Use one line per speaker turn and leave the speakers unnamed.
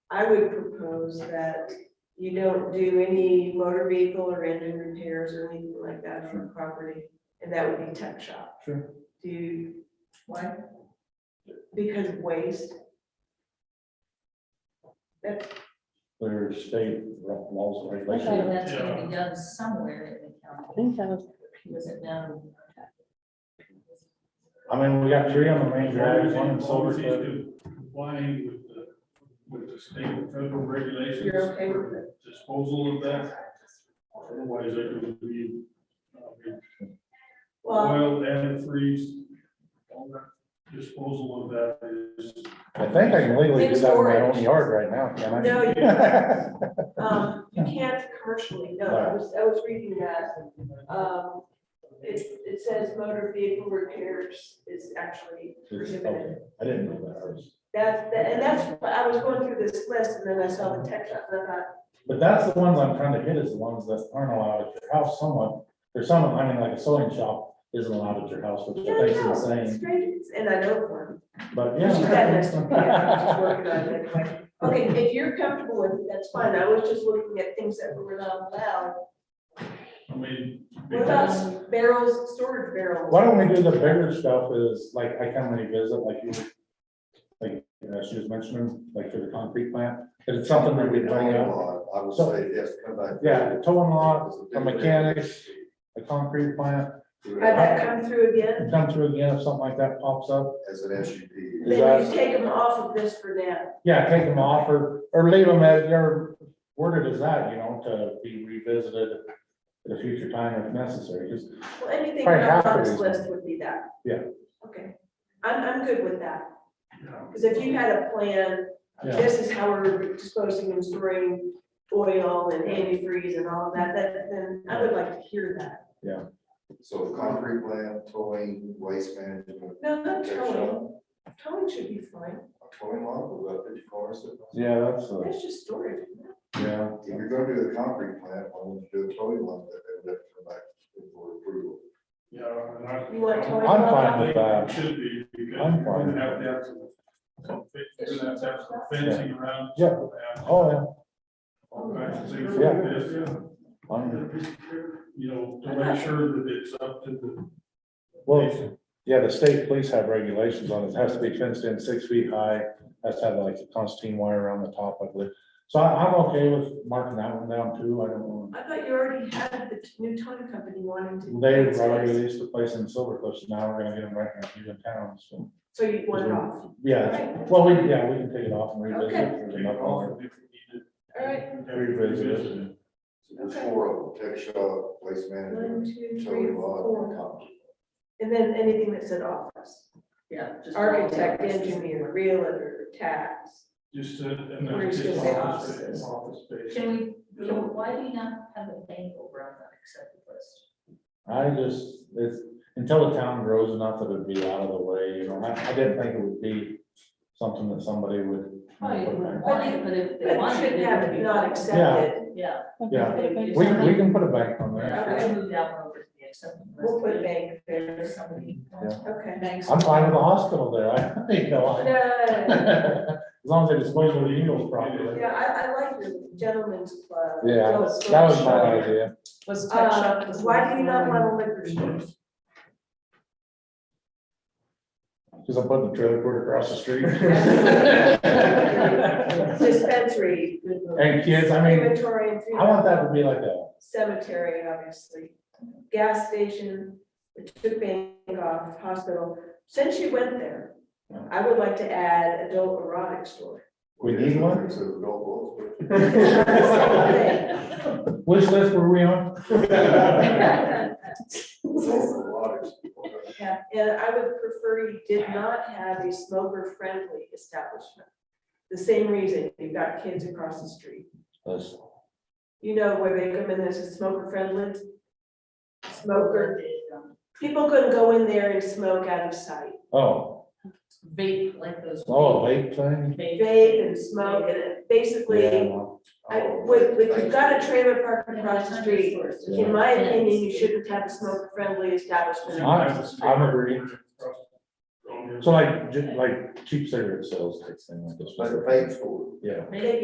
I would propose that you don't do any motor vehicle or engine repairs or anything like that
Sure.
for property, and that would be tech shop.
Sure.
Do you, why? Because of waste?
There's state laws and
I thought
regulations.
that's gonna be done somewhere in the county,
think that was,
was it known?
I mean, we got three on the main
As long
drive,
as
one in
he's- as
Silver
long as he's
Cliff.
Complying with the, with the state and federal regulations.
You're okay with
for Disposal of that, otherwise it would be, uh, be
Well,
oil and freeze, all that disposal of that is.
I think I can legally do that in my own yard right now, can I?
no, you,
Yeah,
um, you can't commercially, no, I was, I was reading that. Um, it, it says motor vehicle repairs is actually prohibited.
I didn't know that. I was-
That's, that- and that's, what I was going through this list and then I saw the tech shop and I thought,
But that's the ones I'm trying to hit is the ones that aren't allowed at your house somewhat. There's some, I mean, like a sewing shop isn't allowed at your house, which
no,
I think is
no, it's
insane,
great, and I know one.
but
She's got
yeah.
this, yeah, she's working on it anyway. Okay, if you're comfortable with it, that's fine, I was just looking at things that were not allowed.
I mean.
What about barrels, storage barrels?
Why don't we do the bigger stuff is, like, I come and visit, like you, like, uh, she was mentioning, like for the concrete plant, it's something that we bring up.
I would say, yes, come back.
Yeah, the towing lot, the mechanics, the concrete plant,
Have that come through again?
come through again if something like that pops up.
As an SUP.
Is
Then
that-
you take them off of this for now.
Yeah, take them off or, or leave them as they're worded as that, you know, to be revisited at a future time if necessary, just,
Well, anything
Probably half
not on
of
this
these.
list would be that.
Yeah.
Okay, I'm, I'm good with that, because if you had a plan
yeah.
this is how we're disposing and storing oil and antifreeze and all of that, that, then I would like to hear that.
So concrete plant, towing, waste management,
No, not
Tech
towing, towing should be fine,
towing lot, with about fifty cars.
Yeah, that's, a-
that's just storage. isn't it?
yeah,
If you're gonna do the concrete plant, why wouldn't you do a towing lot that they would have to come back for approval?
Yeah. and I-
You want towing?
I'm
lot?
fine with that.
Should be, because
I'm
you're
fine.
gonna have to have some, some fe- you're gonna have to have some fencing around.
Yeah. oh, yeah.
All kinds of things
Yeah.
like this, yeah.
I'm-
You know, to make sure that it's up to the.
Well, yeah, the state police have regulations on it, It has to be fenced in six feet high, has to have like a constant wire around the top, I believe. So I, I'm okay with marking that one down too, I don't know.
I thought you already had the t- new towing company wanting to.
They've already released the place in Silver Cliff, so now we're gonna get them right in Cleveland Town, so.
So you want it off,
Yeah, well, we, yeah, we can take it off and revisit it.
Take
There's
it
enough on
off if we need
all right,
to.
Revisit it.
So there's
Okay.
four of them, tech shop, waste
one,
management,
two, three,
towing lot, and
four,
concrete.
and then anything that said office,
Yeah. just-
architect, engineer, realtor, tax.
Just. uh, and
We're just gonna
just
say
office space,
offices.
Office space.
Can we, can- why do you not have a thing over on the accepted list?
I just, it's, until the town grows enough that it'd be out of the way, you know, I, I didn't think it would be something that somebody would.
Probably wouldn't
But
want
it-
it, but if they
But
wanted it.
shouldn't
it
have
would
it
be-
not accepted,
Yeah.
Yeah.
If
We,
somebody-
we can put it back on
Yeah,
there.
I would move that one over to the accepted list.
we'll put bank
If
there,
somebody wants
Yeah.
okay.
banks.
I'm fine with the hospital there, I, you know, I-
No,
As long as they dispose of the needles properly.
uh, yeah, I, I like the gentleman's club.
Yeah, That was my idea.
was tech shop.
Uh,
was
why do you not
one.
want a liquor store?
Cause I'm putting the trailer court across the street.
Dispensary. good move.
And kids, I mean,
Crematory and funeral.
I want that to be like a,
Cemetery, obviously, gas station, the took bank off, hospital, since you went there, I would like to add adult erotic store.
We need one?
So the goal was-
which list were we on?
A lot of people.
Yeah, and I would prefer you did not have a smoker-friendly establishment. The same reason, you've got kids across the street.
Let's-
You know where they come in, there's a smoker-friendly. Smoker,
um,
people couldn't go in there and smoke out of sight.
Oh,
Vape like those.
oh, late thing?
Vape and smoke, and it basically,
Yeah.
I, with, with, you've got a trailer park across the street.
Yeah.
In my opinion, you shouldn't have a smoker-friendly establishment.
I- I agree.
Don't have-
So like, ju- like cheap cigarette sales, type thing like this.
Like a paint store.
Yeah.
Vape